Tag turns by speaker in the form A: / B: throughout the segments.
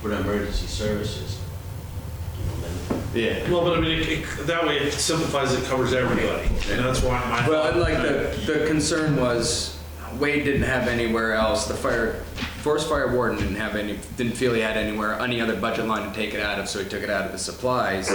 A: for emergency services. You know, then-
B: Yeah.
C: Well, but I mean, it- it- that way it simplifies, it covers everybody, and that's why my.
B: Well, and like the, the concern was Wade didn't have anywhere else, the fire, forest fire warden didn't have any, didn't feel he had anywhere, any other budget line to take it out of, so he took it out of his supplies.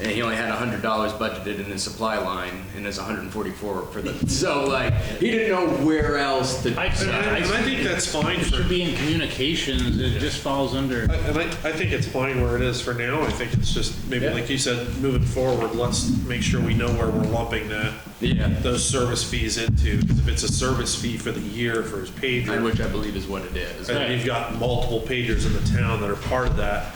B: And he only had a hundred dollars budgeted in his supply line, and there's a hundred and forty-four for the, so like, he didn't know where else to.
C: I- And I and I think that's fine
D: It
C: for,
D: should be in communications, it just falls under,
C: I- and I, I think it's fine where it is for now, I think it's just, maybe
B: Yeah.
C: like you said, moving forward, let's make sure we know where we're lumping that,
B: Yeah,
C: those service fees into, 'Cause if it's a service fee for the year for his
B: and
C: pager,
B: which I believe is what it is.
C: and you've got multiple pagers in the town that are part of that,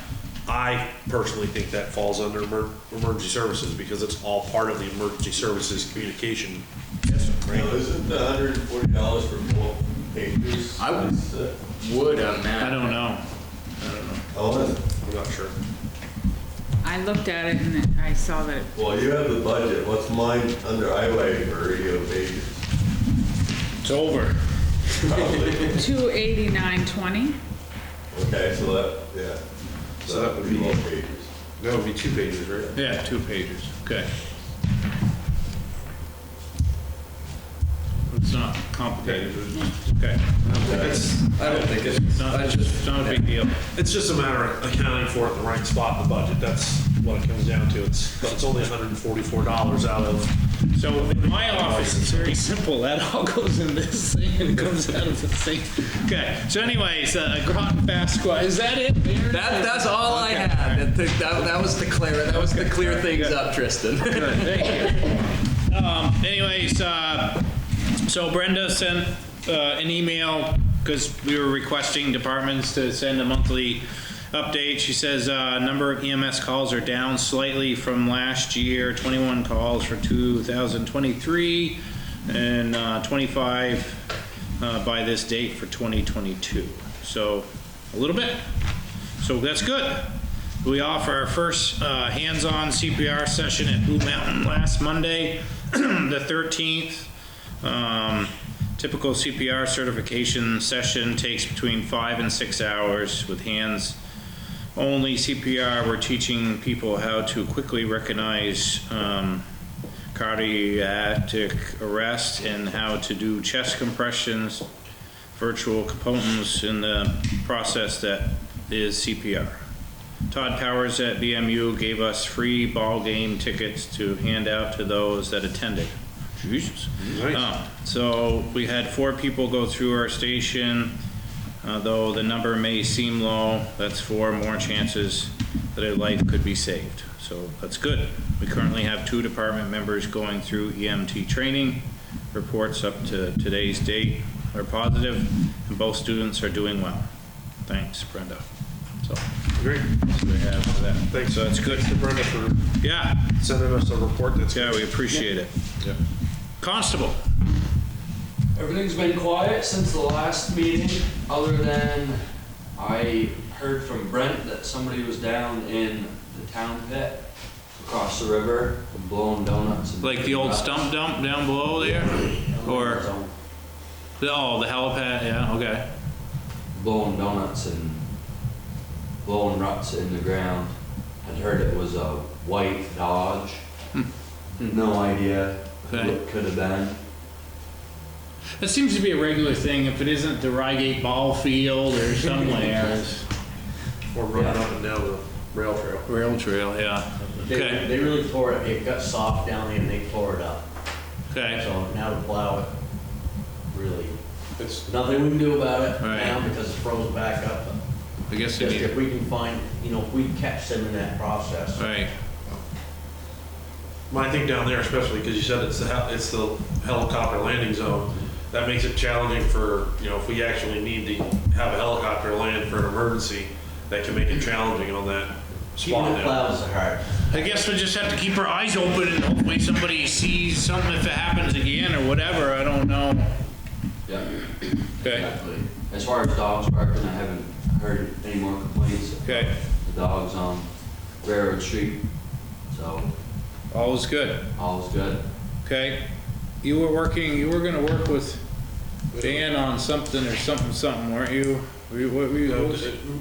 C: I personally think that falls under emer- emergency services, because it's all part of the emergency services communication.
A: Now, isn't the hundred and forty dollars for both papers?
B: I would-
A: is, uh,
B: Wood on that.
D: I don't know.
A: How is it?
C: I'm not sure.
E: I looked at it and it- I saw that,
A: Well, you have the budget, what's mine under highway for radio pages?
D: It's over.
A: Probably.
E: two eighty-nine twenty,
A: Okay, so that, yeah.
C: So that would be-
A: Both papers.
C: That would be two pages, right?
D: Yeah, two pages, okay. It's not complicated, okay.
C: It's,
B: I don't think
D: It's
B: it's,
D: not,
B: I
D: it's
B: just,
D: not a big deal.
C: it's just a matter of accounting for it in the right spot in the budget, that's what it comes down to, it's, it's only hundred and forty-four dollars out of,
D: So in my
B: Oh,
D: office, it's very simple. That all goes in this thing and comes out of the thing. Okay. So anyways, uh, Groton Fasqua, is that it? Mayor?
B: that, that's all I
D: Okay.
B: had, that, that that was to clear, that was to clear things
D: good.
B: up, Tristan.
D: Good, thank you. Um, anyways, uh, so Brenda sent, uh, an email, cause we were requesting departments to send a monthly update. She says, uh, number of EMS calls are down slightly from last year, twenty-one calls for two thousand twenty-three and, uh, twenty-five, uh, by this date for twenty twenty-two. So, a little bit. So that's good. We offer our first uh, hands-on CPR session at Blue Mountain last Monday, the 13th. Um, Typical CPR certification session takes between five and six hours with hands only CPR. We're teaching people how to quickly recognize um, cardiac arrest and how to do chest compressions, virtual components in the process that is CPR. Todd Powers at BMU gave us free ball game tickets to hand out to those that attended. Jesus.
C: Nice.
D: Um, So we had four people go through our station, uh, though the number may seem low, that's four more chances that a life could be saved. So that's good. We currently have two department members going through EMT training. Reports up to today's date are positive, and both students are doing well. Thanks, Brenda. So
C: great,
D: that's what we have for that.
C: thanks.
D: So that's good.
C: Thanks to Brenda for
D: Yeah,
C: sending us a report that's.
D: yeah, we appreciate it. Constable,
F: Everything's been quiet since the last meeting, other than I heard from Brent that somebody was down in the town pit across the river, blowing donuts. and-
D: like the old stump dump down below there? Or? The- Oh, the helipad, yeah, okay.
F: Blowing donuts and blowing ruts in the ground. I'd heard it was a white Dodge. No idea who
D: Hmm. Okay.
F: it could have been.
D: That seems to be a regular thing, if it isn't the Rygate Ball Field or somewhere.
C: Or running up and down the rail trail.
D: Rail trail, yeah.
G: They,
D: Okay,
G: they really tore it, it got soft down there and they tore it up.
D: okay,
G: So now to plow it, really,
C: It's,
G: nothing we can do about it
D: Right.
G: now because it's frozen back up.
D: I guess they
G: Just
D: need,
G: if we can find, you know, if we catch them in that process.
D: right,
C: my thing down there especially, because you said it's the, hel- it's the helicopter landing zone, that makes it challenging for, you know, if we actually need to have a helicopter land for an emergency, that can make it challenging on that
G: Keeping
C: spot
G: the
C: now.
G: plows are hard.
D: I guess we just have to keep our eyes open and hopefully somebody sees something if it happens again or whatever, I don't know.
F: yeah,
D: Okay,
F: exactly. As far as dogs barking, I haven't heard any more complaints.
D: okay,
F: The dog's on Railroad Street, so
D: all is good,
F: all's good.
D: okay? You were working, you were gonna work with Dan on something or something, something, weren't you? Were you, what were you? what was-